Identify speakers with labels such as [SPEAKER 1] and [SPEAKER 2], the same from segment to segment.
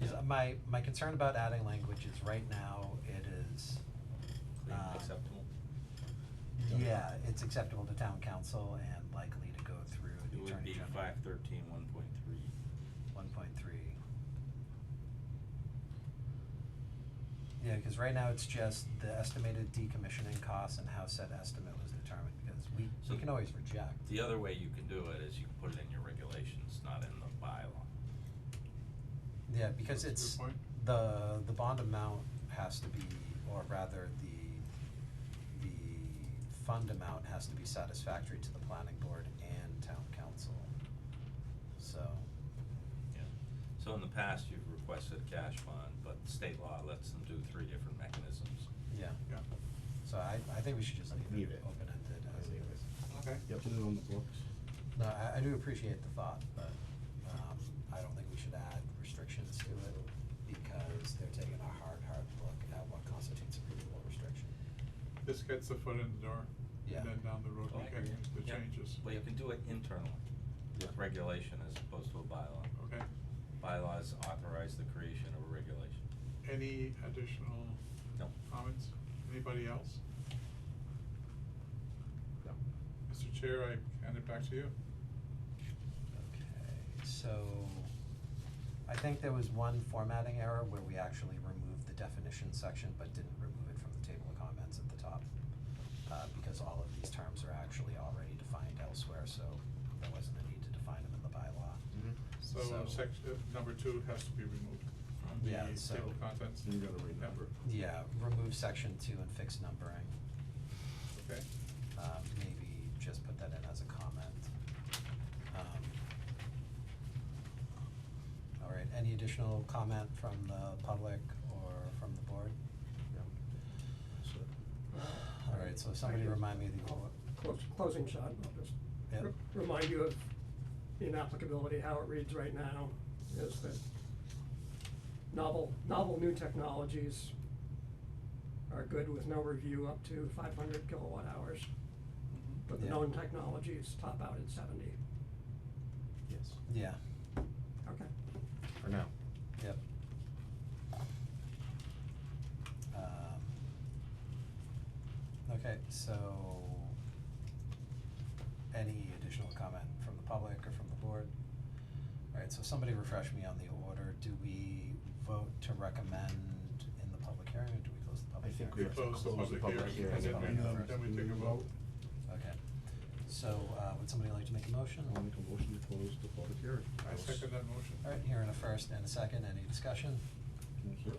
[SPEAKER 1] 'Cause uh, my, my concern about adding language is right now it is,
[SPEAKER 2] Clean,
[SPEAKER 1] Um,
[SPEAKER 2] acceptable.
[SPEAKER 1] yeah, it's acceptable to town council and likely to go through
[SPEAKER 2] It
[SPEAKER 1] the
[SPEAKER 2] would
[SPEAKER 1] attorney
[SPEAKER 2] be
[SPEAKER 1] general.
[SPEAKER 2] five thirteen one point three.
[SPEAKER 1] One point three. Yeah, cause right now it's just the estimated decommissioning costs and how said estimate was determined, because we,
[SPEAKER 2] So-
[SPEAKER 1] we can always reject.
[SPEAKER 2] The other way you can do it is you can put it in your regulations, not in the bylaw.
[SPEAKER 1] Yeah, because
[SPEAKER 3] That's a
[SPEAKER 1] it's,
[SPEAKER 3] good point.
[SPEAKER 1] the, the bond amount has to be, or rather, the, the fund amount has to be satisfactory to the planning board and town council. So,
[SPEAKER 2] Yeah. So in the past, you've requested a cash fund, but state law lets them do three different mechanisms.
[SPEAKER 1] yeah,
[SPEAKER 3] Yeah,
[SPEAKER 1] so I, I think we should just leave
[SPEAKER 4] Leave
[SPEAKER 1] it
[SPEAKER 4] it.
[SPEAKER 1] open-ended as it
[SPEAKER 4] Leave
[SPEAKER 1] is.
[SPEAKER 3] okay.
[SPEAKER 4] Yep. Put it on the books.
[SPEAKER 1] No, I, I do appreciate the thought, but, um, I don't think we should add restrictions to it because they're taking a hard, hard look at what constitutes a reasonable restriction.
[SPEAKER 3] This gets the foot in the door,
[SPEAKER 1] Yeah.
[SPEAKER 3] and then down the road,
[SPEAKER 2] Oh, I
[SPEAKER 3] you get
[SPEAKER 2] agree.
[SPEAKER 3] the
[SPEAKER 2] Yeah.
[SPEAKER 3] changes.
[SPEAKER 2] Well, you can do it internally, with regulation as opposed to a bylaw.
[SPEAKER 3] Okay,
[SPEAKER 2] Bylaws authorize the creation of a regulation.
[SPEAKER 3] any additional
[SPEAKER 2] No.
[SPEAKER 3] comments? Anybody else?
[SPEAKER 4] No.
[SPEAKER 3] Mr. Chair, I hand it back to you.
[SPEAKER 1] Okay, so I think there was one formatting error where we actually removed the definition section but didn't remove it from the table of comments at the top. Uh, because all of these terms are actually already defined elsewhere, so there wasn't a need to define them in the bylaw.
[SPEAKER 4] Mm-hmm.
[SPEAKER 3] So
[SPEAKER 1] So-
[SPEAKER 3] section, number two has to be removed from the
[SPEAKER 1] Yeah, so-
[SPEAKER 3] table of contents.
[SPEAKER 4] You gotta renumber.
[SPEAKER 1] Yeah, remove section two and fix numbering,
[SPEAKER 3] Yeah, Okay,
[SPEAKER 1] uh, maybe just put that in as a comment. Um, All right, any additional comment from the public or from the board?
[SPEAKER 4] Yep. So,
[SPEAKER 1] All right, so somebody remind me the,
[SPEAKER 5] Close, closing shot, I'll just
[SPEAKER 1] Yep.
[SPEAKER 5] re- remind you of the inapplicability, how it reads right now, is that novel, novel new technologies are good with no review up to five hundred kilowatt hours, but the
[SPEAKER 1] Yeah.
[SPEAKER 5] known technologies top out at seventy.
[SPEAKER 4] yes,
[SPEAKER 1] yeah,
[SPEAKER 5] Okay.
[SPEAKER 4] for now.
[SPEAKER 1] yep. Um, Okay, so any additional comment from the public or from the board? All right, so somebody refresh me on the order. Do we vote to recommend in the public hearing or do we close the
[SPEAKER 4] I
[SPEAKER 1] public hearing?
[SPEAKER 4] think we have
[SPEAKER 1] first?
[SPEAKER 4] to
[SPEAKER 3] Close the
[SPEAKER 4] close
[SPEAKER 3] public
[SPEAKER 4] the public
[SPEAKER 3] hearing,
[SPEAKER 4] hearing.
[SPEAKER 1] and then we-
[SPEAKER 4] and
[SPEAKER 3] then we take a vote.
[SPEAKER 1] Okay, so uh would somebody like to make a motion?
[SPEAKER 4] I'll make a motion to close the public hearing.
[SPEAKER 3] I second that motion.
[SPEAKER 1] All right, here in a first and a second, any discussion?
[SPEAKER 4] Yes, sir.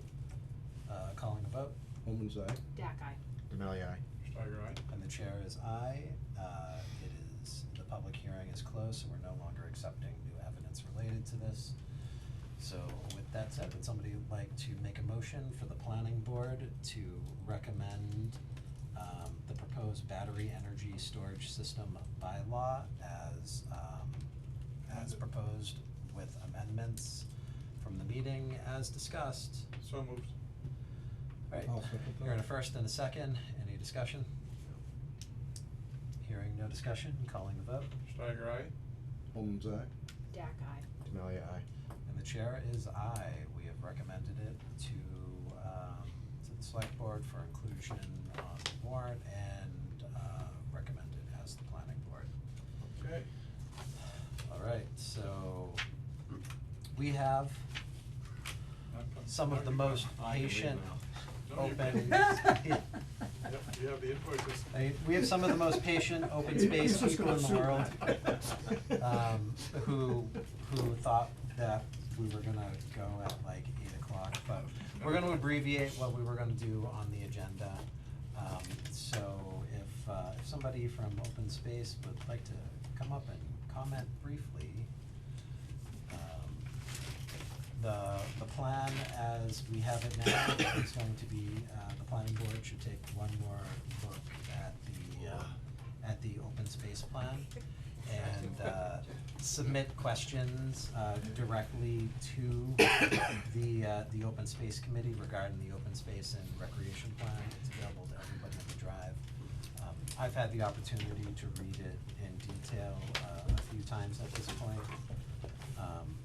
[SPEAKER 1] Uh, calling a vote,
[SPEAKER 4] Holman's aye.
[SPEAKER 6] Dak eye.
[SPEAKER 4] Denali aye.
[SPEAKER 3] Steiger, aye?
[SPEAKER 1] and the chair is aye. Uh, it is, the public hearing is closed, so we're no longer accepting new evidence related to this. So with that said, would somebody like to make a motion for the planning board to recommend um, the proposed battery energy storage system bylaw as um, as proposed with amendments from the meeting as discussed?
[SPEAKER 3] So moved.
[SPEAKER 1] Alright,
[SPEAKER 4] I'll second
[SPEAKER 1] here in a
[SPEAKER 4] that.
[SPEAKER 1] first and a second, any discussion? Hearing no discussion, calling the vote,
[SPEAKER 3] Steiger, aye?
[SPEAKER 4] Holman's aye.
[SPEAKER 6] Dak eye.
[SPEAKER 4] Denali aye.
[SPEAKER 1] and the chair is aye, we have recommended it to, um, to the select board for inclusion on the warrant and, uh, recommended as the planning board.
[SPEAKER 3] Okay,
[SPEAKER 1] Alright, so, we have
[SPEAKER 3] I'm com-
[SPEAKER 1] some of
[SPEAKER 3] now
[SPEAKER 1] the
[SPEAKER 3] you
[SPEAKER 1] most
[SPEAKER 3] come.
[SPEAKER 4] I can leave
[SPEAKER 1] patient,
[SPEAKER 3] now. No, you
[SPEAKER 1] open.
[SPEAKER 3] Yep, you have the invoices.
[SPEAKER 1] I- we have some of the most patient open space
[SPEAKER 5] He's just
[SPEAKER 1] people in the world.
[SPEAKER 5] gonna sue that.
[SPEAKER 1] um, who, who thought that we were gonna go at like eight o'clock, but we're gonna abbreviate what we were gonna do on the agenda. Um, so if, uh, if somebody from Open Space would like to come up and comment briefly, um, the, the plan as we have it now is going to be, uh, the planning board should take one more look at the, uh, at the open space plan and uh, submit questions uh, directly to the, uh, the Open Space Committee regarding the Open Space and Recreation Plan. It's available to everybody on the drive. Um, I've had the opportunity to read it in detail uh, a few times at this point. Um,